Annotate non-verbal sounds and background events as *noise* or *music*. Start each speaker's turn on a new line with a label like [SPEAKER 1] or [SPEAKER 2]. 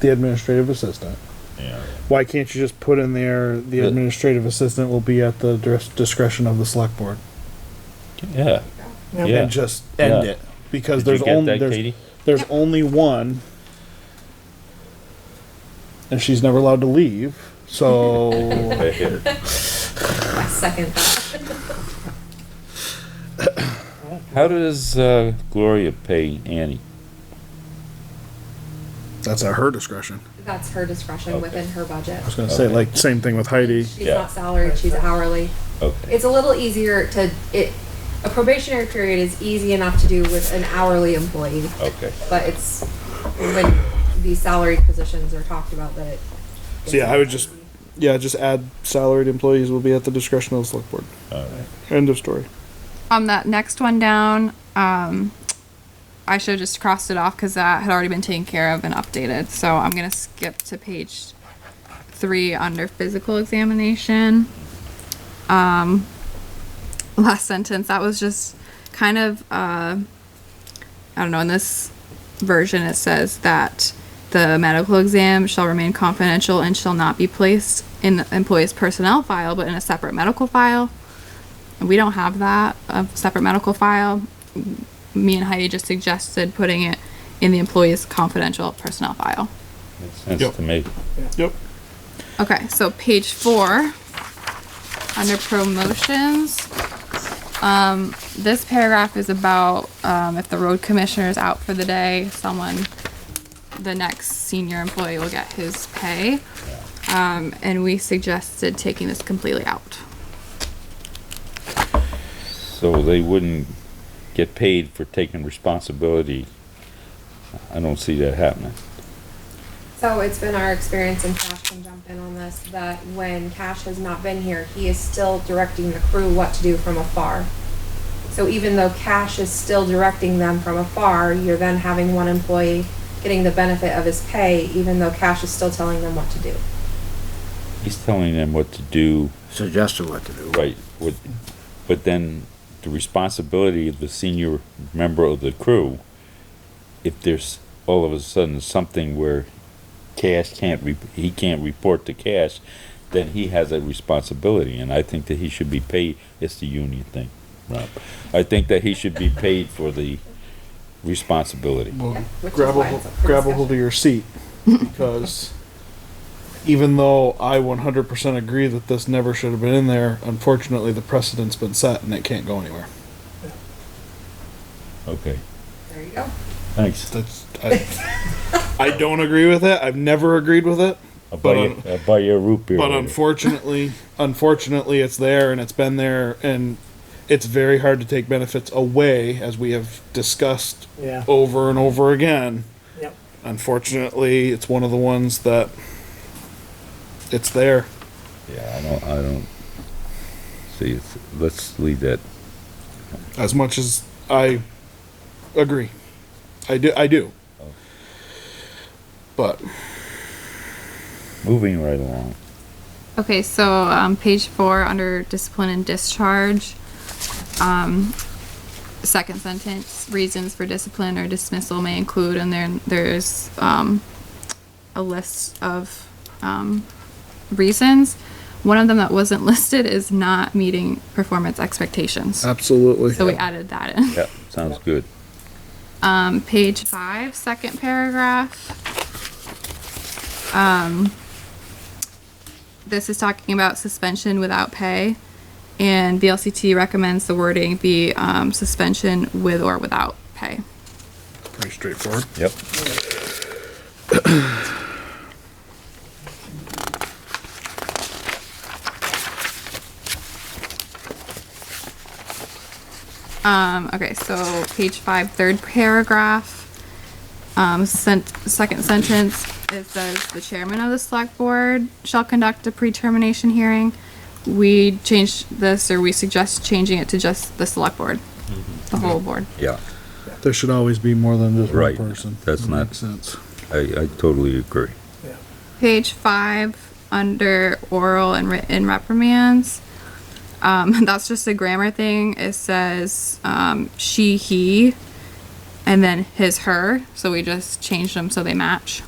[SPEAKER 1] the administrative assistant.
[SPEAKER 2] Yeah.
[SPEAKER 1] Why can't you just put in there, the
[SPEAKER 2] The-
[SPEAKER 1] administrative assistant will be at the dis- discretion of the select board?
[SPEAKER 2] Yeah. Yeah.
[SPEAKER 1] And just end
[SPEAKER 2] Yeah.
[SPEAKER 1] it, because
[SPEAKER 2] Did you
[SPEAKER 1] there's
[SPEAKER 2] get
[SPEAKER 1] only,
[SPEAKER 2] that,
[SPEAKER 1] there's,
[SPEAKER 2] Katie?
[SPEAKER 1] there's only one. And she's never allowed to leave,
[SPEAKER 2] *laughs*
[SPEAKER 1] so,
[SPEAKER 2] Right here.
[SPEAKER 3] Second thought.
[SPEAKER 2] How does uh, Gloria pay Annie?
[SPEAKER 1] that's at her discretion.
[SPEAKER 3] That's her discretion within her budget.
[SPEAKER 1] I was gonna say,
[SPEAKER 2] Okay.
[SPEAKER 1] like, same thing with Heidi.
[SPEAKER 3] She's
[SPEAKER 2] Yeah.
[SPEAKER 3] not salaried, she's hourly.
[SPEAKER 2] Okay.
[SPEAKER 3] It's a little easier to, it, a probationary period is easy enough to do with an hourly employee.
[SPEAKER 2] Okay.
[SPEAKER 3] But it's when these salaried positions are talked about that it.
[SPEAKER 1] So yeah, I would just, yeah, just add salaried employees will be at the discretion of the select board.
[SPEAKER 2] All right.
[SPEAKER 1] End of story.
[SPEAKER 4] on that next one down, um, I should have just crossed it off because that had already been taken care of and updated. So I'm gonna skip to page three under physical examination. Um, last sentence. That was just kind of uh, I don't know. In this version, it says that the medical exam shall remain confidential and shall not be placed in the employee's personnel file, but in a separate medical file. We don't have that, a separate medical file. M- Me and Heidi just suggested putting it in the employee's confidential personnel file.
[SPEAKER 2] Makes sense
[SPEAKER 1] Yep.
[SPEAKER 2] to me.
[SPEAKER 1] Yep.
[SPEAKER 4] Okay, so page four, under promotions. Um, this paragraph is about, um, if the road commissioner is out for the day, someone, the next senior employee will get his pay. Um, and we suggested taking this completely out.
[SPEAKER 2] So they wouldn't get paid for taking responsibility. I don't see that happening.
[SPEAKER 3] So it's been our experience, and Cash can jump in on this, that when Cash has not been here, he is still directing the crew what to do from afar. So even though Cash is still directing them from afar, you're then having one employee getting the benefit of his pay, even though Cash is still telling them what to do.
[SPEAKER 2] He's telling them what to do,
[SPEAKER 5] suggested what to do.
[SPEAKER 2] right? What, but then the responsibility of the senior member of the crew, if there's all of a sudden something where Cash can't, re- he can't report to Cash, then he has a responsibility, and I think that he should be paid, it's the union thing, Rob. I think that he should be paid for the responsibility.
[SPEAKER 1] Well,
[SPEAKER 3] which is
[SPEAKER 1] grab a,
[SPEAKER 3] why
[SPEAKER 1] hol-
[SPEAKER 3] it's up for
[SPEAKER 1] grab a
[SPEAKER 3] discussion.
[SPEAKER 1] hold of your seat, because even though I one hundred percent agree that this never should have been in there, unfortunately, the precedent's been set and it can't go anywhere.
[SPEAKER 2] Okay,
[SPEAKER 3] There you go.
[SPEAKER 2] thanks.
[SPEAKER 1] That's, I,
[SPEAKER 3] *laughs*
[SPEAKER 1] I don't agree with it, I've never agreed with it,
[SPEAKER 2] I'll buy,
[SPEAKER 1] But
[SPEAKER 2] you, I'll buy you a root beer.
[SPEAKER 1] but
[SPEAKER 2] later.
[SPEAKER 1] unfortunately, unfortunately, it's there and it's been there and it's very hard to take benefits away, as we have discussed
[SPEAKER 6] Yeah.
[SPEAKER 1] over and over again.
[SPEAKER 6] Yep.
[SPEAKER 1] Unfortunately, it's one of the ones that it's there.
[SPEAKER 2] yeah, I don't. I don't see. It's, let's leave that.
[SPEAKER 1] as much as I agree. I do. I do. But
[SPEAKER 2] Moving right along.
[SPEAKER 4] Okay, so um, page four under discipline and discharge. Um, second sentence: reasons for discipline or dismissal may include, and then there's um, a list of um, reasons. One of them that wasn't *laughs* listed is not meeting performance expectations.
[SPEAKER 1] Oh, absolutely,
[SPEAKER 4] So we added that in.
[SPEAKER 2] Yeah, sounds good.
[SPEAKER 4] Um, page five, second paragraph. Um, this is talking about suspension without pay, and VLCT recommends the wording be um, suspension with or without pay.
[SPEAKER 1] pretty straightforward.
[SPEAKER 2] Yep.
[SPEAKER 4] Um, okay, so page five, third paragraph. Um, sent, second sentence, it says the chairman of the select board shall conduct a pre-termination hearing. We changed this, or we suggest changing it to just the select board, the whole board.
[SPEAKER 2] Yeah,
[SPEAKER 1] There should always be more than just
[SPEAKER 2] Right.
[SPEAKER 1] one person.
[SPEAKER 2] That's
[SPEAKER 1] That
[SPEAKER 2] not-
[SPEAKER 1] makes sense.
[SPEAKER 2] I, I totally agree.
[SPEAKER 4] Page five, under oral and written reprimands. Um, *laughs* that's just a grammar thing. It says um, she, he, and then his, her. So we just changed them so they match.